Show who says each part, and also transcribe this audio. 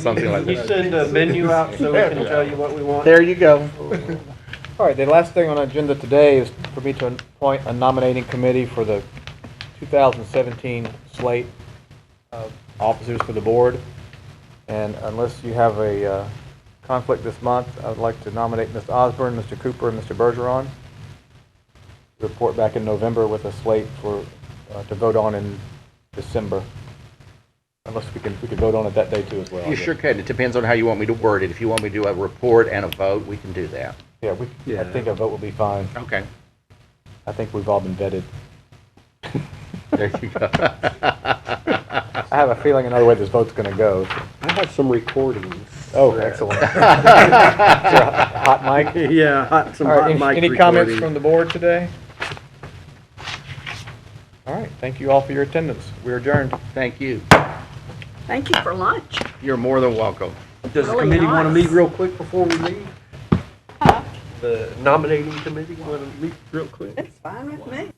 Speaker 1: Something like
Speaker 2: You
Speaker 1: that.
Speaker 2: send a menu out so we can tell you what we want?
Speaker 3: There you go. All right, the last thing on the agenda today is for me to appoint a nominating committee for the 2017 slate of officers for the board. And unless you have a uh, conflict this month, I would like to nominate Ms. Osborne, Mr. Cooper, and Mr. Bergeron. Report back in November with a slate for, uh, to vote on in December. Unless we can, we can vote on it that day too as well. I
Speaker 1: You
Speaker 3: guess.
Speaker 1: sure can. It depends on how you want me to word it. If you want me to do a report and a vote, we can do that.
Speaker 3: Yeah, we, I think a vote will be fine.
Speaker 1: Okay.
Speaker 3: I think we've all been vetted.
Speaker 1: There you go.
Speaker 3: I have a feeling another way this vote's gonna go.
Speaker 4: I have some recordings.
Speaker 3: Oh, excellent. Hot mic?
Speaker 4: Yeah, hot, some
Speaker 3: All right,
Speaker 4: hot
Speaker 3: any-
Speaker 4: mic
Speaker 3: any comments
Speaker 4: recording.
Speaker 3: from the board today? All right, thank you all for your attendance. We're adjourned.
Speaker 1: Thank you.
Speaker 5: Thank you for lunch.
Speaker 1: You're more than welcome.
Speaker 4: Does the
Speaker 5: Really
Speaker 4: committee want to
Speaker 5: nice.
Speaker 4: meet real quick before we leave? The nominating committee want to meet real quick?
Speaker 5: It's fine with me.